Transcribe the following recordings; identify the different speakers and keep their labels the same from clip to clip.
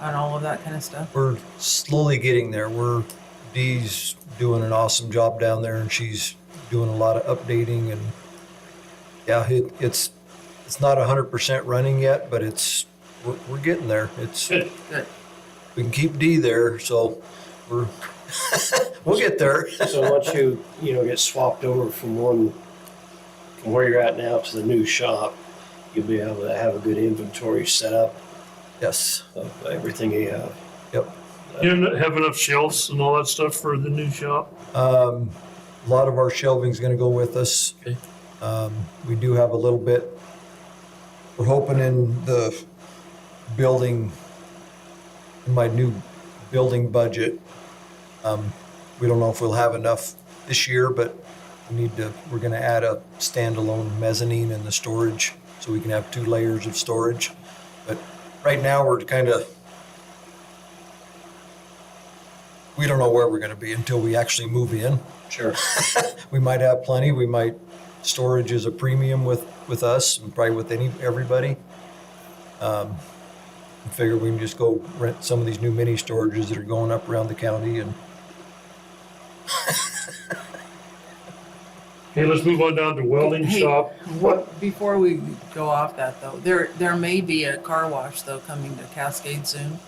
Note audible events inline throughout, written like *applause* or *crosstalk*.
Speaker 1: on all of that kind of stuff.
Speaker 2: We're slowly getting there. We're Dee's doing an awesome job down there, and she's doing a lot of updating and yeah, it, it's it's not hundred percent running yet, but it's we're, we're getting there. It's
Speaker 3: Good.
Speaker 1: Good.
Speaker 2: we can keep D there, so we're *laughs* we'll get there.
Speaker 3: So once you, you know, get swapped over from one, from where you're at now to the new shop, you'll be able to have a good inventory set up
Speaker 2: Yes.
Speaker 3: of everything you have.
Speaker 2: Yep.
Speaker 4: You n- have enough shelves and all that stuff for the new shop?
Speaker 2: Um, a lot of our shelving's going to go with us.
Speaker 4: Okay.
Speaker 2: Um, we do have a little bit. We're hoping in the building, in my new building budget. Um, we don't know if we'll have enough this year, but we need to. We're going to add a standalone mezzanine in the storage, so we can have two layers of storage. But right now, we're kind of we don't know where we're going to be until we actually move in.
Speaker 3: Sure.
Speaker 2: We might have plenty. We might storage is a premium with with us and probably with any everybody. Um, I figure we can just go rent some of these new mini storages that are going up around the county and
Speaker 4: Hey, let's move on down to welding
Speaker 1: Hey.
Speaker 4: shop.
Speaker 1: What before we go off that though, there there may be a car wash though coming to Cascade soon.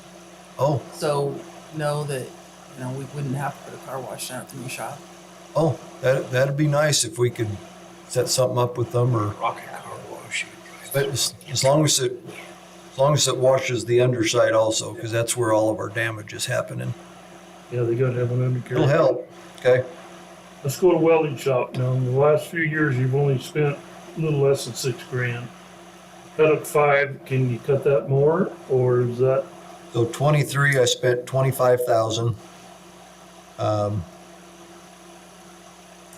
Speaker 2: oh
Speaker 1: So know that you know we wouldn't have to put a car wash down at the new shop.
Speaker 2: oh that that'd be nice if we could set something up with them or
Speaker 3: Rocket car wash. you drive
Speaker 2: but as, as long as it as long as it washes the underside also because that's where all of our damage is happening.
Speaker 4: Yeah, they gotta have an undercarriage.
Speaker 2: It'll help. Okay.
Speaker 4: Let's go to welding shop. Now, in the last few years, you've only spent a little less than six grand. Cut up five, can you cut that more, or is that,
Speaker 2: So 23, I spent 25,000. Um,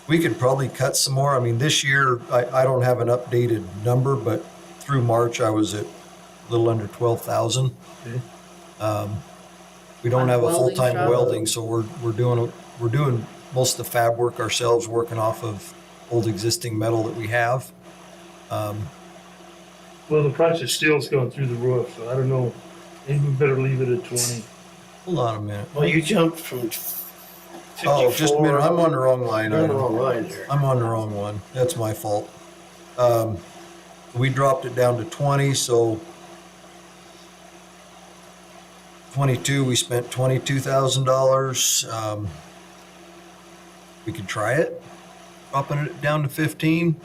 Speaker 2: we could probably cut some more. I mean, this year, I, I don't have an updated number, but through March, I was at a little under 12,000.
Speaker 4: Okay.
Speaker 2: Um, we don't
Speaker 1: On
Speaker 2: have a
Speaker 1: welding
Speaker 2: full-time
Speaker 1: shop?
Speaker 2: welding, so we're, we're doing, we're doing most of the fab work ourselves, working off of old existing metal that we have. Um,
Speaker 4: well, the price of steel's going through the roof, so I don't know. Maybe we better leave it at twenty.
Speaker 2: hold on a minute.
Speaker 3: Well, you jumped from fifty-four.
Speaker 2: Oh, just a minute. I'm on the wrong line.
Speaker 3: You're on the
Speaker 2: item.
Speaker 3: wrong line
Speaker 2: *laughs*
Speaker 3: there.
Speaker 2: I'm on the wrong one. That's my fault. Um, we dropped it down to 20, so 22, we spent $22,000. Um, we could try it, dropping it down to 15.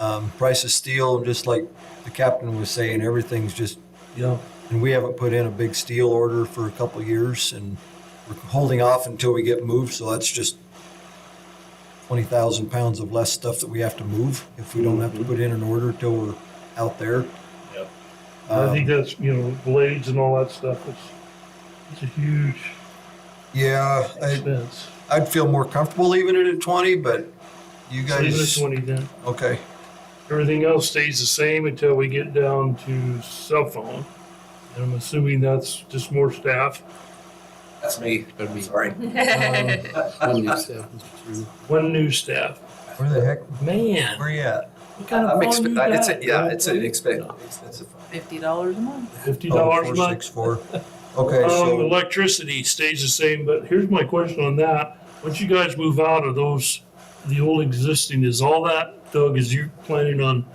Speaker 2: Um, price of steel, just like the captain was saying, everything's just,
Speaker 4: Yeah.
Speaker 2: and we haven't put in a big steel order for a couple years and we're holding off until we get moved. So that's just 20,000 pounds of less stuff that we have to move if we don't have to put in an order till we're out there.
Speaker 3: Yep.
Speaker 4: I
Speaker 2: Um,
Speaker 4: think that's, you know, blades and all that stuff, it's, it's a
Speaker 2: Um,
Speaker 4: huge
Speaker 2: yeah, I,
Speaker 4: expense.
Speaker 2: I'd feel more comfortable leaving it at 20, but you
Speaker 4: Leave it at
Speaker 2: guys,
Speaker 4: twenty then.
Speaker 2: okay.
Speaker 4: Everything else stays the same until we get down to cell phone. And I'm assuming that's just more staff.
Speaker 5: That's me.
Speaker 6: That'd be
Speaker 5: Sorry.
Speaker 4: Um,
Speaker 6: one new step, Mr. Chairman.
Speaker 4: One new staff.
Speaker 2: Where the heck,
Speaker 4: Man,
Speaker 2: where you at?
Speaker 4: what kind
Speaker 5: I'm
Speaker 4: of fun you
Speaker 5: expe- it's a,
Speaker 4: got?
Speaker 5: yeah, it's an expensive, expensive.
Speaker 1: Fifty dollars a month.
Speaker 4: Fifty
Speaker 2: Oh,
Speaker 4: dollars a month. *laughs*
Speaker 2: 464. Okay,
Speaker 4: Um,
Speaker 2: so
Speaker 4: electricity stays the same, but here's my question on that. Once you guys move out of those, the old existing, is all that, Doug, is you planning on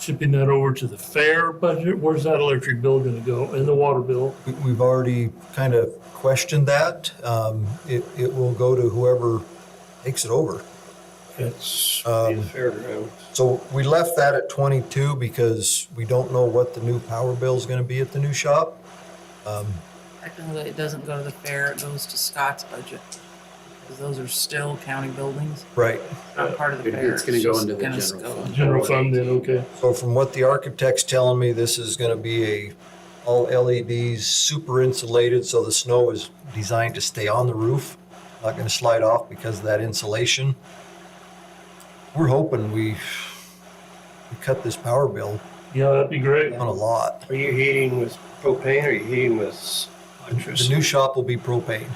Speaker 4: shipping that over to the fair budget? Where's that electric bill gonna go and the water bill?
Speaker 2: we- we've already kind of questioned that. Um, it, it will go to whoever takes it over.
Speaker 4: It's,
Speaker 5: Uh,
Speaker 2: Um,
Speaker 3: The fairground.
Speaker 2: So we left that at 22 because we don't know what the new power bill is going to be at the new shop. Um,
Speaker 1: Technically, it doesn't go to the fair; it goes to Scott's budget because those are still county buildings,
Speaker 2: right.
Speaker 1: not part of the
Speaker 6: It-
Speaker 1: fair.
Speaker 6: Uh, it's gonna go
Speaker 1: just
Speaker 6: into the
Speaker 1: gonna
Speaker 6: general
Speaker 1: go
Speaker 6: fund.
Speaker 4: general fund then, okay.
Speaker 2: So from what the architect's telling me, this is going to be a all LEDs, super insulated, so the snow is designed to stay on the roof, not going to slide off because of that insulation. We're hoping we, we cut this power bill
Speaker 4: Yeah, that'd be great.
Speaker 2: on a lot.
Speaker 3: Are you heating with propane or are you heating with
Speaker 2: The
Speaker 3: electricity?
Speaker 2: new shop will be propane.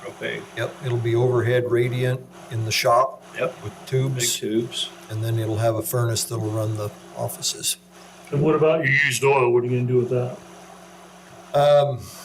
Speaker 3: Propane.
Speaker 2: Yep, it'll be overhead radiant in the shop
Speaker 3: Yep.
Speaker 2: with
Speaker 3: Big
Speaker 2: tubes.
Speaker 3: tubes.
Speaker 2: and then it'll have a furnace that'll run the offices.
Speaker 4: And what about your used oil? What are you gonna do with that?
Speaker 2: Um,